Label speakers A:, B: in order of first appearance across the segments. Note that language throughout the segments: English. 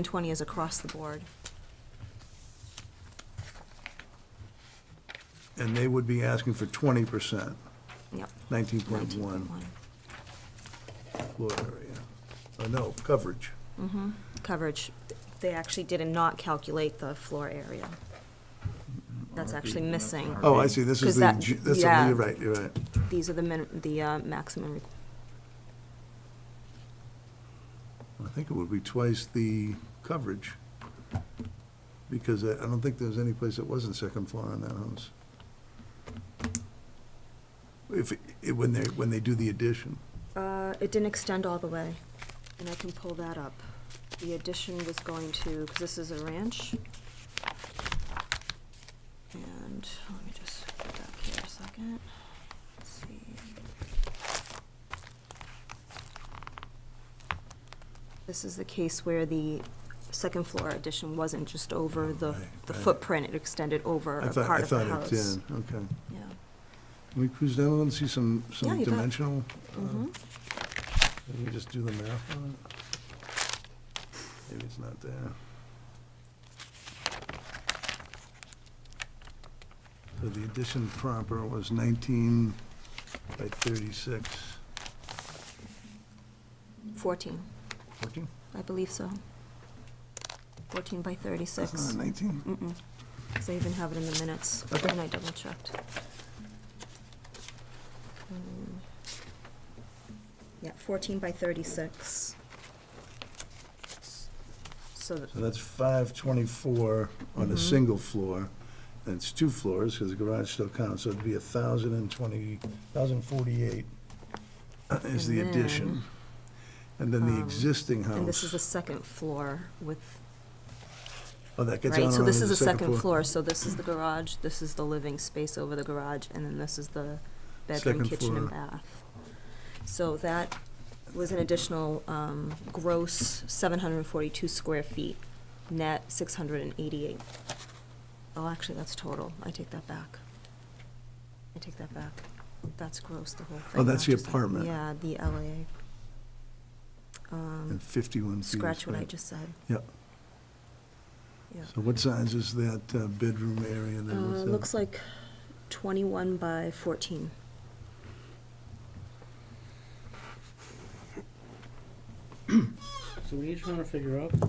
A: and twenty is across the board.
B: And they would be asking for twenty percent,
A: Yep.
B: nineteen point
A: 19.1.
B: one floor area. Uh, no, coverage.
A: Coverage, they actually did not calculate the floor area. That's actually missing.
B: Oh, I see, this
A: Because
B: is the,
A: that-
B: ju- that's,
A: yeah.
B: a- you're right, you're right.
A: These are the min, the uh, maximum, re-
B: I think it would be twice the coverage. Because I, I don't think there's any place that wasn't second floor on that house. If, it- when they, when they do the addition.
A: uh, it didn't extend all the way, and I can pull that up. The addition was going to, because this is a ranch. And, let me just get back here a second, let's see. This is the case where the second floor addition wasn't just over the,
B: Right,
A: the
B: right.
A: footprint, it extended over
B: I
A: a
B: thought, I
A: part of the
B: thought
A: house.
B: it did, okay.
A: Yeah.
B: Can we cruise down and see some,
A: Yeah,
B: some
A: you bet.
B: dimensional? uh,
A: Mhm.
B: Let me just do the math on it. Maybe it's not there. So the addition proper was 19 by 36.
A: 14,
B: 14?
A: I believe so. 14 by
B: That's
A: 36.
B: not 19.
A: Mm-mm, because I even have it in the minutes,
B: Okay.
A: and I double checked. Mm. Yeah, 14 by 36. So, th-
B: So that's 524 on a
A: Mhm.
B: single floor, and it's two floors, because the garage still counts, so it'd be 1,020, 1,048 is the
A: And
B: addition. And then the
A: um,
B: existing house.
A: and this is the second floor with,
B: Oh, that gets
A: right,
B: on
A: so this
B: around
A: is the second
B: floor.
A: floor, so this is the garage, this is the living space over the garage, and then this is the bedroom,
B: Second
A: kitchen, and
B: floor.
A: bath. So that was an additional, um, gross seven hundred and forty-two square feet, net six hundred and eighty-eight. Oh, actually, that's total, I take that back. I take that back, that's gross, the whole thing.
B: Oh, that's
A: not
B: the
A: just
B: apartment.
A: Yeah, the LA. Um,
B: And 51 feet. is
A: scratch what I
B: right.
A: just said,
B: Yep.
A: yeah.
B: So what size is that uh, bedroom area
A: Uh,
B: there? What's that?
A: looks like twenty-one by fourteen.
C: So what are you trying to figure out?
B: Uh,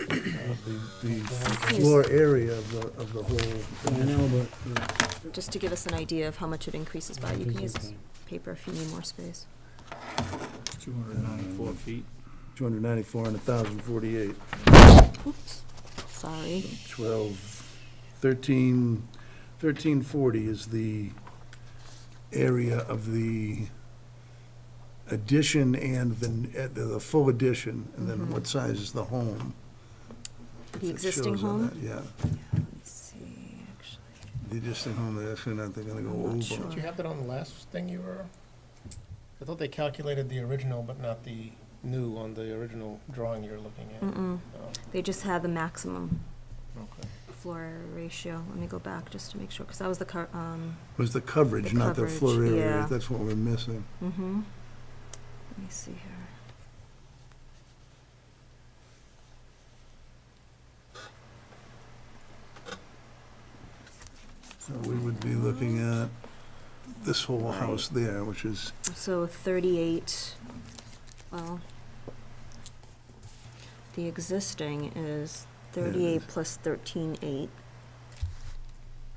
B: The the
A: Yes.
B: floor area of the, of the whole.
C: I know,
A: Just to give us an idea of how much it increases by,
C: but.
A: you can use this paper if you need more space.
D: 294 feet.
B: 294 and 1,048,
A: Oops, sorry.
B: 12, 13, 1340 is the area of the addition and the, uh, the the full addition, and then
A: Mhm.
B: what size is the home?
A: The
B: It
A: existing
B: shows on
A: home?
B: that, Yeah,
A: Yeah, let's see, actually.
B: the existing home, they're actually not, they're gonna go
A: I'm not
B: over.
A: sure.
E: Did you have that on the last thing you were? I thought they calculated the original, but not the new on the original drawing you're looking at.
A: Mm-mm,
E: Oh,
A: they just had the maximum
E: okay.
A: floor area ratio. Let me go back just to make sure, because that was the cur, um,
B: Was the coverage,
A: The
B: not the floor
A: coverage,
B: area,
A: yeah.
B: that's what we're missing.
A: mm-hmm. Let me see here.
B: So we would be looking
A: Mm.
B: at this whole house there, which is,
A: So thirty-eight, well, the existing is thirty-eight plus thirteen-eight,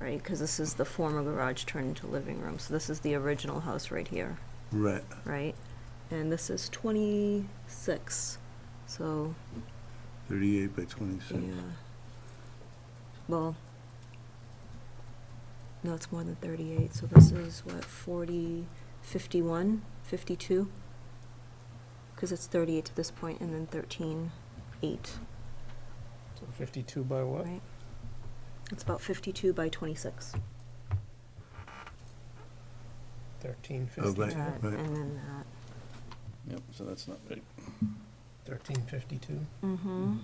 A: right, because this is the former garage turned into living room, so this is the original house right here,
B: right,
A: right? And this is twenty-six, so,
B: 38 by
A: yeah,
B: 26.
A: well, no, it's more than thirty-eight, so this is what, forty, fifty-one, fifty-two? Because it's thirty-eight to this point, and then thirteen, eight,
E: So fifty-two by what?
A: right? It's about fifty-two by twenty-six.
E: Thirteen
B: Oh,
E: fifty-two?
B: right,
A: That,
B: right.
A: And then that.
B: Yep, so that's not right.
E: Thirteen fifty-two?
A: Mm-hmm.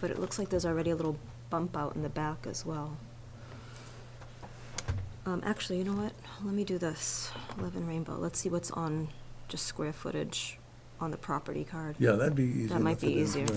A: But it looks like there's already a little bump out in the back as well. Um, actually, you know what? Let me do this. Eleven Rainbow. Let's see what's on just square footage
B: on the property card.
A: Yeah, that'd be easy
B: That might
A: enough to
B: be
A: do,
B: easier.
A: yeah.